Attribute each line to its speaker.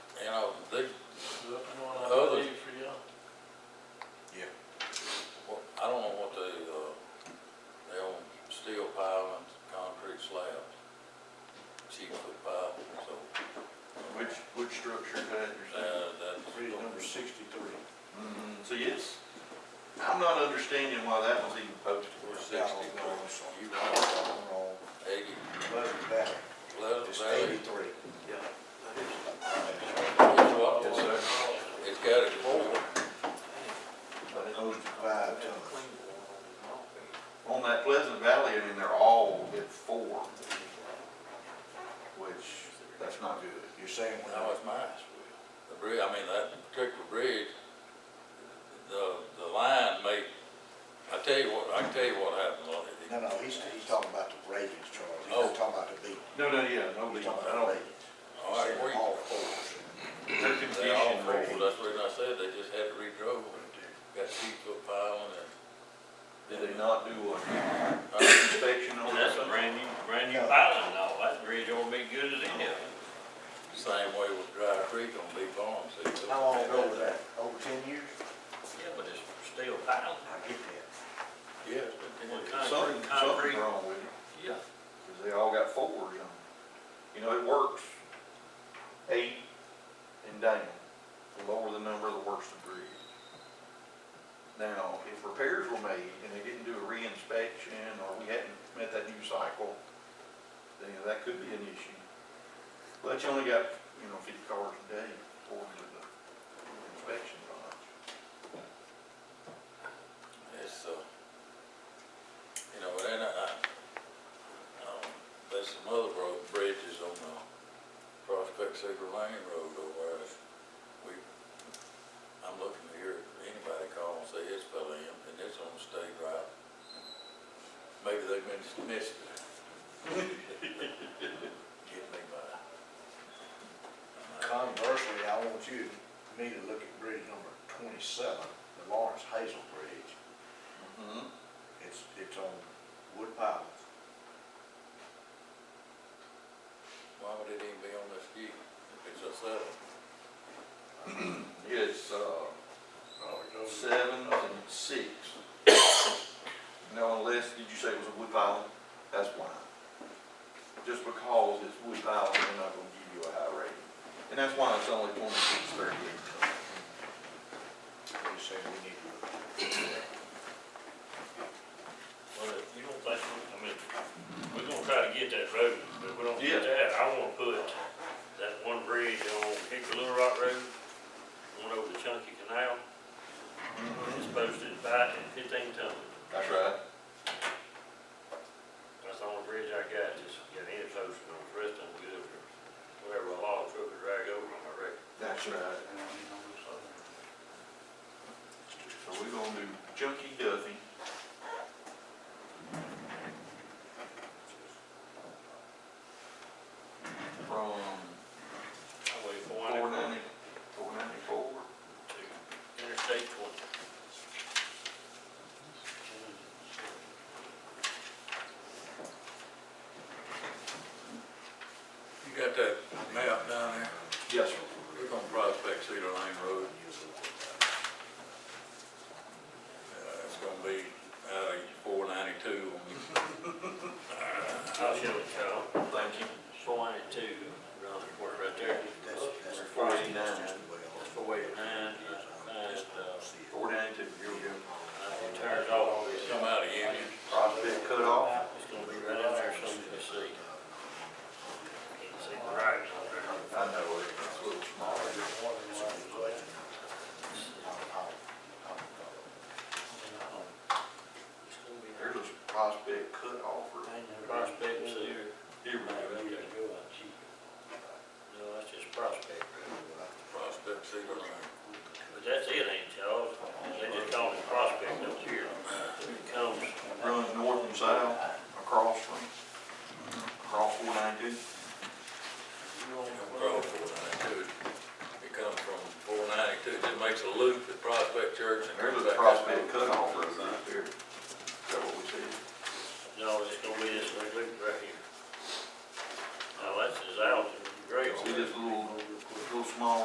Speaker 1: uh,
Speaker 2: sure could intersect.
Speaker 1: Uh, that's.
Speaker 2: Read number sixty-three.
Speaker 3: Mm, So yes, I'm not understanding why that was even posted.
Speaker 1: Four
Speaker 2: Yeah, I'll
Speaker 1: sixty,
Speaker 2: go this one. You right, I'm wrong.
Speaker 1: eighty,
Speaker 2: Pleasant Valley,
Speaker 1: Pleasant
Speaker 2: it's
Speaker 1: Valley.
Speaker 2: eighty-three. Yeah.
Speaker 1: It's what?
Speaker 2: Yes, sir.
Speaker 1: It's got a four.
Speaker 2: But it goes to five tons.
Speaker 3: On that Pleasant Valley, I mean, they're all at four, which, that's not good.
Speaker 2: You're saying we're
Speaker 1: That was
Speaker 2: not.
Speaker 1: mine. The bridge, I mean, that particular bridge, the, the line made, I tell you what, I can tell you what happened on it.
Speaker 2: No, no, he's, he's talking about the radius, Charles. He's
Speaker 1: Oh.
Speaker 2: not talking about the beat.
Speaker 3: No, no, yeah, no, Lee, I
Speaker 2: He's talking about the
Speaker 3: don't,
Speaker 2: radius.
Speaker 1: All right,
Speaker 2: Saying
Speaker 1: we-
Speaker 2: All fours.
Speaker 3: they're
Speaker 1: They all
Speaker 3: conditioned
Speaker 1: rolled,
Speaker 3: for,
Speaker 1: that's the reason I said they just had to re-drove and got two foot pile and.
Speaker 3: did they not do a
Speaker 1: Uh,
Speaker 3: inspection on
Speaker 4: And
Speaker 3: that?
Speaker 4: that's a brand new, brand new piling and all, that bridge ought to be good as any of them.
Speaker 1: Same way with Dry Creek on Big Farm, see.
Speaker 2: How long ago was that? Over ten years?
Speaker 4: Yeah, but it's still piling.
Speaker 2: I get that.
Speaker 1: Yeah.
Speaker 4: Well,
Speaker 3: Something, something's
Speaker 4: Concrete, concrete,
Speaker 3: wrong with it,
Speaker 4: yeah.
Speaker 3: because they all got fours on them. You know, it works eight and down, the lower the number, the worse the bridge. Now, if repairs were made and they didn't do a reinspection, or we hadn't met that new cycle, then that could be an issue. But you only got, you know, fifty cars a day according to the inspection lodge.
Speaker 1: It's, uh, you know, and I, I, um, there's some other road, bridges on the Prospect Cedar Lane Road over there. that We, I'm looking to hear if anybody call and say it's fell in, and it's on the state route. Maybe they've been dismissed. Get me by.
Speaker 2: Conversely, I want you, me to look at bridge number twenty-seven, the Lawrence Hazel Bridge.
Speaker 3: Mhm.
Speaker 2: It's, it's on wood piles.
Speaker 1: Why would it even be on this view? If it's a seven,
Speaker 3: It's, uh, seven and six. Now, unless, did you say it was a wood pile? That's why. Just because it's wood pile, they're not gonna give you a high rating. And that's why it's only twenty-six thirty-eight tons.
Speaker 2: You say we need to look at it.
Speaker 4: Well, if uh, you don't think, I mean, we're gonna try to get that road, but if we don't get
Speaker 3: Yeah.
Speaker 4: that, I wanna put that one bridge on Hickory Little Rock Road, one over the Chunky Canal, it's posted by fifteen ton.
Speaker 3: That's right.
Speaker 4: That's the only bridge I got, just got any posted on, the rest of them good, or whatever a log truck would drag over on, I reckon.
Speaker 3: That's right. So we're gonna do Junkie Duffy. From
Speaker 4: Highway four
Speaker 3: four ninety,
Speaker 4: ninety
Speaker 3: four ninety-four.
Speaker 4: to Interstate twenty.
Speaker 1: you got that map down there?
Speaker 3: Yes, sir.
Speaker 1: We're on Prospect Cedar Lane Road. Uh, It's gonna be out of four ninety-two on
Speaker 4: I'll show it, Charles.
Speaker 3: Thank you.
Speaker 4: Four ninety-two, around the corner right there.
Speaker 2: That's, that's.
Speaker 3: Or 49.
Speaker 2: that's just the way it is.
Speaker 4: That's the way it is. And, and, uh,
Speaker 2: See it.
Speaker 3: Four ninety-two, here we go.
Speaker 4: it turns off,
Speaker 1: the, come out of Union.
Speaker 3: Prospect cut off.
Speaker 4: it's gonna be right in there somewhere to see. Can't see the right on there.
Speaker 3: I know it, it's a little smaller.
Speaker 2: I'll- I'll- I'll-
Speaker 4: It's gonna be
Speaker 3: There's a prospect cut off or.
Speaker 4: Prospect and Cedar.
Speaker 3: Here
Speaker 4: No, that's just Prospect Road.
Speaker 1: Prospect Cedar Lane.
Speaker 4: But that's it, ain't it, Charles? They just call it Prospect up here. It comes,
Speaker 3: Runs north and south across from, across four ninety-two.
Speaker 1: Across four ninety-two. It comes from four ninety-two, it makes a loop at Prospect Church and.
Speaker 3: There's
Speaker 1: comes
Speaker 3: a
Speaker 1: back
Speaker 3: prospect
Speaker 1: up.
Speaker 3: cut off road right there. Is that what we see?
Speaker 4: no, it's gonna be this little loop right here. Now, that's his out, great.
Speaker 3: See this little